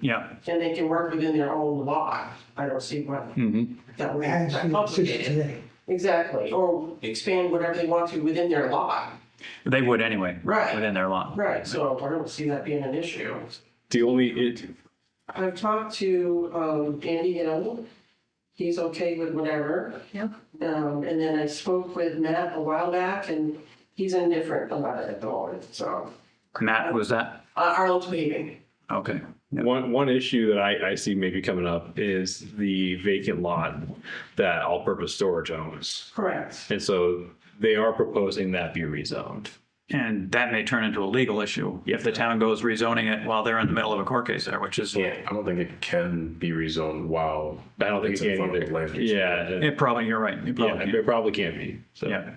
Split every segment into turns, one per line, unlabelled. yeah.
and they can work within their own law. I don't see why
Mm-hmm.
Mhm.
that would
I
be that
see the system
complicated.
today.
Exactly, or expand whatever they want to within their law.
They would anyway.
Right.
Within their law.
Right, so I don't see that being an issue.
The only, it,
I've talked to um Andy Hill. He's okay with whatever.
Yeah.
Um, and then I spoke with Matt a while back and he's indifferent about it at the moment, so.
Matt, was that?
Uh, Arnold's leaving.
Okay. Yeah.
one, one issue that I, I see maybe coming up is the vacant lot that all-purpose storage owns.
Correct.
And so they are proposing that be rezoned.
And that may turn into a legal issue if the town goes rezoning it while they're in the middle of a court case there, which is,
Yeah.
I don't think it can be rezoned while.
I don't think
it's
it
in
can
front of the
either.
land use.
Yeah, it-
it probably, you're right. It
yeah,
probably,
it probably can't be, so.
yeah.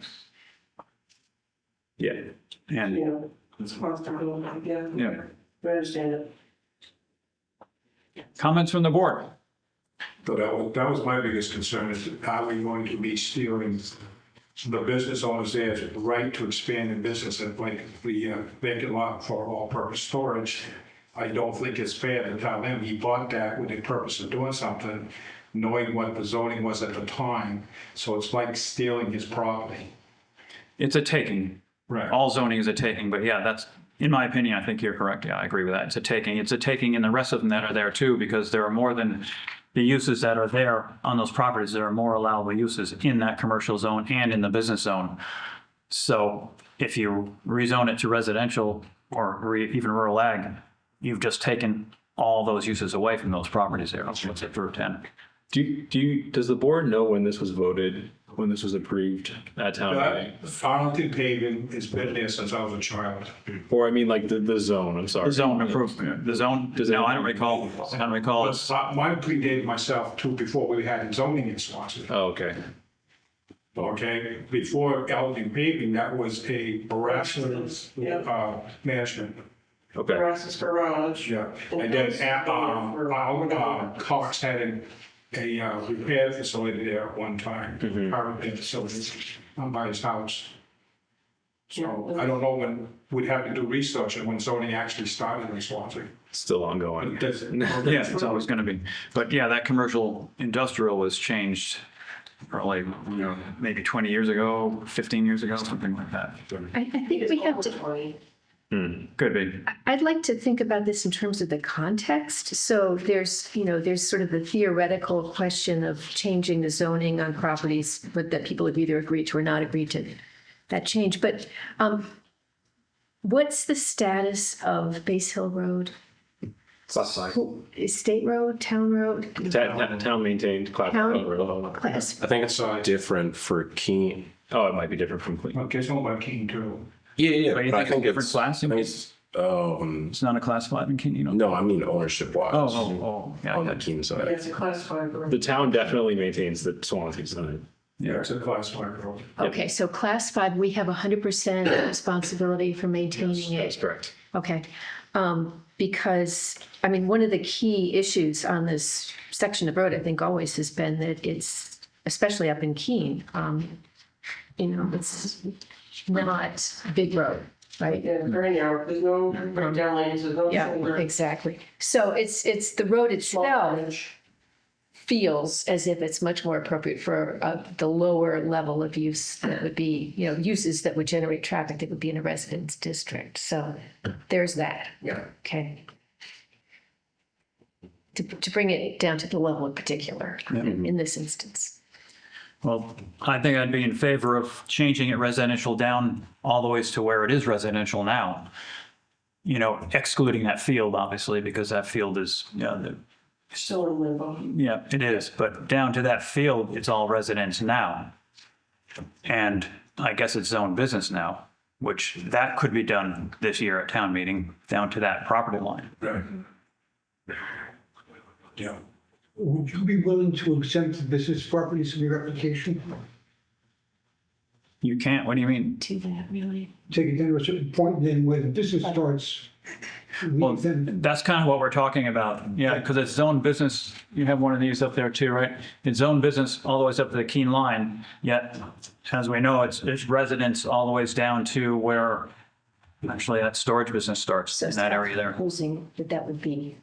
Yeah.
And,
You know, it's possible, yeah.
Yeah.
I understand it.
comments from the board?
So that was, that was my biggest concern, is how are we going to be stealing the business owners there's right to expand in business and like the uh, vacant lot for all-purpose storage. I don't think it's fair to tell him he bought that with the purpose of doing something, knowing what the zoning was at the time. So it's like stealing his property.
It's a taking.
Right.
All zoning is a taking, but yeah, that's, in my opinion, I think you're correct. Yeah, I agree with that. It's a taking. It's a taking and the rest of them that are there too, because there are more than the uses that are there on those properties. There are more allowable uses in that commercial zone and in the business zone. So if you rezone it to residential or re- even rural ag, you've just taken all those uses away from those properties there. What's it through 10?
Do you, do you, does the board know when this was voted, when this was approved at town meeting?
Arlington paving has been there since I was a child.
Or I mean, like the, the zone, I'm sorry.
The zone improvement, the zone,
Does
no,
it-
I don't recall, I don't recall.
But mine predated myself too, before we had zoning in Swansea.
Oh, okay.
Okay, before Elgin paving, that was a harassment,
Yeah.
uh, management.
Okay.
Ross's garage.
Yeah. And then, at, um, Al- uh, Cox had an- a, uh, repair facility there at one time, car repair facility, um, by his house. So I don't know when, we'd have to do research on when zoning actually started in Swansea.
Still ongoing.
Does-
Yeah, it's always going to be. But yeah, that commercial industrial was changed probably, you know, maybe 20 years ago, 15 years ago, something like that.
I, I think
It's
we have
over
to,
20.
Could be.
I'd like to think about this in terms of the context. So there's, you know, there's sort of the theoretical question of changing the zoning on properties but that people have either agreed to or not agreed to that change. But um, what's the status of Base Hill Road? Who- Is State Road, Town Road,
Ta- ta- Town maintained Clap.
County.
Oh,
class?
I think it's
Sorry.
different for Keene.
it might be different from Cleveland.
Okay, so about King too.
Yeah, yeah.
But you
but
think
I
it's
think
different class?
I think it's, um,
It's not a class five in Keene, you know?
no, I mean ownership wise.
Oh, oh, oh, yeah,
On the
yeah.
Keene
Yeah,
side.
it's a class five. road.
The town definitely maintains the Swansea sign.
Yeah, it's a class five road.
Okay, so class five, we have 100% responsibility for maintaining it.
correct.
Okay, um, because, I mean, one of the key issues on this section of road, I think always has been that it's, especially up in Keene, um, you know, it's not big road, right?
Yeah, very narrow, there's no breakdown lanes, there's no
Yeah,
shoulder.
exactly. So it's, it's, the road
Small
itself
bridge.
feels as if it's much more appropriate for, uh, the lower level of use that would be, you know, uses that would generate traffic that would be in a residence district. So there's that.
Yeah.
Okay. To, to bring it down to the level in particular in this instance.
Well, I think I'd be in favor of changing it residential down all the ways to where it is residential now. You know, excluding that field, obviously, because that field is, you know, the-
Still in limbo.
Yeah, it is, but down to that field, it's all residents now. And I guess it's zone business now, which that could be done this year at town meeting, down to that property line.
Right. Yeah.
Would you be willing to exempt the business properties from your application?
You can't, what do you mean?
To that, really.
Take it down to a certain point, and then where the business starts,
Well,
leave them.
That's kind of what we're talking about, yeah, because it's zone business, you have one of these up there too, right? It's zone business all the way up to the Keene line, yet, as we know, it's, it's residents all the ways down to where actually that storage business starts in that area there.
Proposing that that would be